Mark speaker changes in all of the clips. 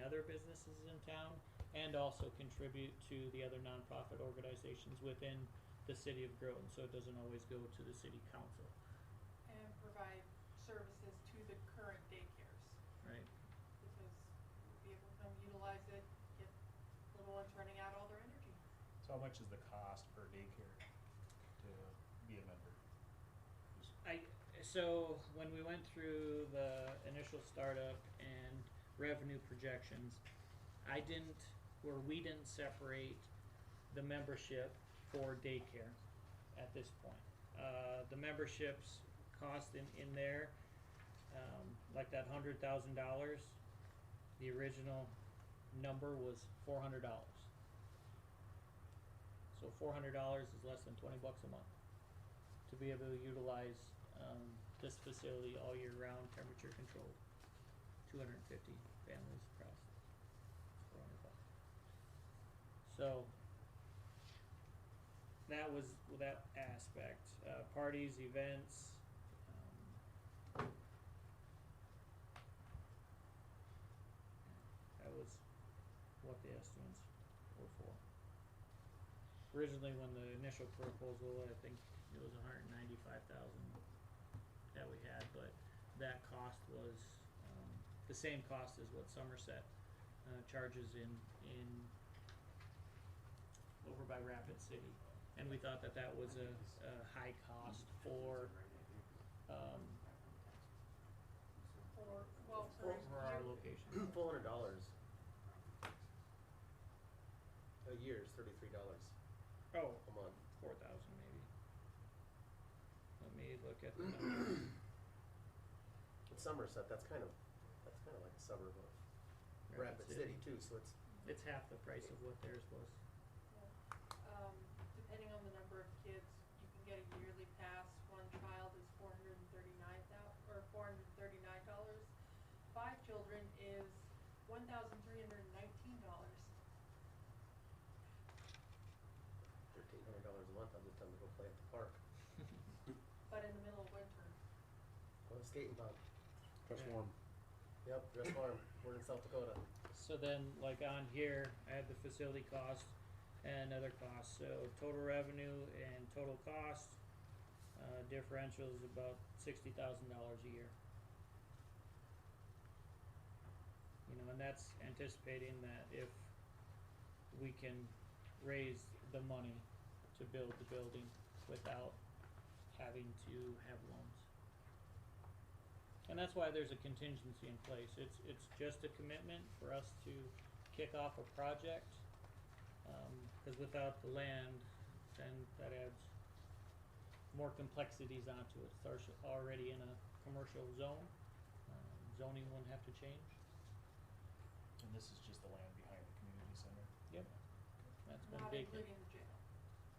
Speaker 1: other businesses in town and also contribute to the other nonprofit organizations within the city of Groton, so it doesn't always go to the city council,
Speaker 2: and provide services to the current daycares.
Speaker 1: right?
Speaker 2: Because be able to utilize it, get little ones running out all their energy.
Speaker 3: So how much is the cost per daycare to be a member? Just-
Speaker 1: I, so when we went through the initial startup and revenue projections, I didn't, or we didn't separate the membership for daycare at this point. Uh, the memberships cost in, in there, um, like that hundred thousand dollars, the original number was four hundred dollars. So four hundred dollars is less than twenty bucks a month to be able to utilize um, this facility all year round, temperature controlled. Two hundred and fifty families across. four hundred bucks. So that was that aspect, uh, parties, events. um, That was what the estimates were for. Originally, when the initial proposal, I think it was hundred and ninety-five thousand that we had, but that cost was, um, the same cost as what Somerset, uh, charges in, in over by Rapid City. And we thought that that was a, a high cost for, um,
Speaker 2: Or, well,
Speaker 1: for,
Speaker 2: sorry,
Speaker 1: for our
Speaker 2: you-
Speaker 1: location.
Speaker 4: Four hundred dollars. A year is thirty-three dollars
Speaker 1: Oh,
Speaker 4: a month.
Speaker 1: four thousand maybe. Let me look at the number.
Speaker 4: In Somerset, that's kind of, that's kind of like a suburb of Rapid City too, so it's,
Speaker 1: It's half the price of what theirs was.
Speaker 2: yeah. um, depending on the number of kids, you can get a yearly pass. One child is four hundred and thirty-nine thou- or four hundred and thirty-nine dollars. Five children is one thousand three hundred and nineteen dollars.
Speaker 4: thirteen hundred dollars a month, I'll just have to go play at the park,
Speaker 2: But in the middle of winter,
Speaker 4: go to skating pub.
Speaker 1: Press Yeah.
Speaker 3: warm.
Speaker 4: Yep, dress warm, we're in South Dakota.
Speaker 1: So then, like on here, I have the facility cost and other costs, so total revenue and total cost, uh, differential is about sixty thousand dollars a year. You know, and that's anticipating that if we can raise the money to build the building without having to have loans. And that's why there's a contingency in place. It's, it's just a commitment for us to kick off a project. Um, cause without the land, then that adds more complexities onto it. It's already- already in a commercial zone. Um, Zoning wouldn't have to change.
Speaker 3: And this is just the land behind the community center?
Speaker 1: Yep. That's been
Speaker 2: not
Speaker 1: big.
Speaker 2: including the jail,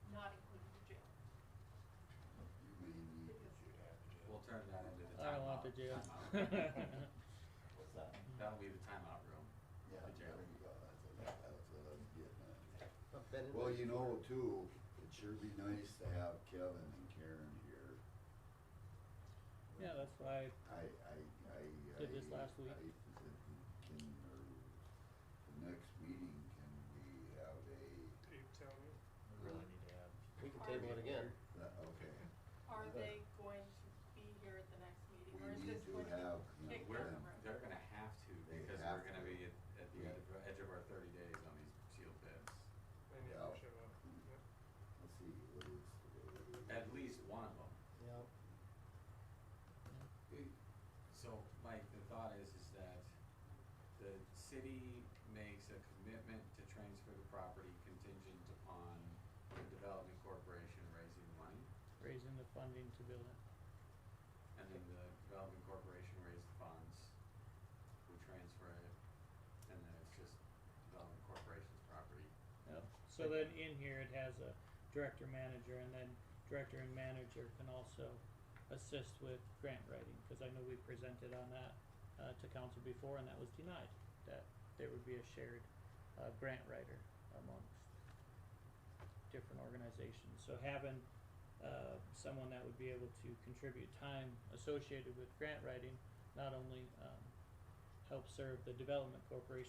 Speaker 2: not including the jail.
Speaker 5: We'll turn that into the timeout.
Speaker 1: I don't want the jail.
Speaker 5: timeout room.
Speaker 6: What's that?
Speaker 5: That'll be the timeout room.
Speaker 6: Yeah,
Speaker 5: The jail.
Speaker 6: there you go, that's what, I- that's what I'm getting at.
Speaker 4: I've been in
Speaker 6: Well,
Speaker 4: there
Speaker 6: you
Speaker 4: before.
Speaker 6: know, too, it'd sure be nice to have Kevin and Karen here.
Speaker 1: Yeah, that's why,
Speaker 6: I, I, I.
Speaker 1: Did this
Speaker 6: I-
Speaker 1: last week.
Speaker 6: I- Can, or, the next meeting, can we have a,
Speaker 3: We really need to have.
Speaker 4: We can table it again.
Speaker 6: that- uh, okay,
Speaker 2: Are
Speaker 6: Okay.
Speaker 2: they going to be here at the next meeting,
Speaker 6: We
Speaker 2: or is
Speaker 6: need
Speaker 2: this
Speaker 6: to
Speaker 2: going to
Speaker 6: have, you
Speaker 2: be
Speaker 6: know,
Speaker 2: kicked
Speaker 6: where-
Speaker 2: down the
Speaker 5: We're,
Speaker 2: road?
Speaker 5: they're gonna have to,
Speaker 6: They
Speaker 5: because
Speaker 6: have
Speaker 5: we're gonna
Speaker 6: to.
Speaker 5: be at, at the ed- edge of our thirty days on these sealed bids.
Speaker 6: yeah. Let's see, what is today? What is
Speaker 5: At
Speaker 6: it?
Speaker 5: least one of them.
Speaker 4: Yep.
Speaker 5: So, Mike, the thought is, is that the city makes a commitment to transfer the property contingent upon the development corporation raising money,
Speaker 1: raising the funding to build it.
Speaker 5: and then the development corporation raised the funds, we transfer it, and then it's just development corporation's property.
Speaker 1: Yep. So then in here it has a director manager and then director and manager can also assist with grant writing, cause I know we presented on that uh to council before and that was denied, that there would be a shared uh grant writer amongst different organizations. So having uh someone that would be able to contribute time associated with grant writing not only um helps serve the development corporation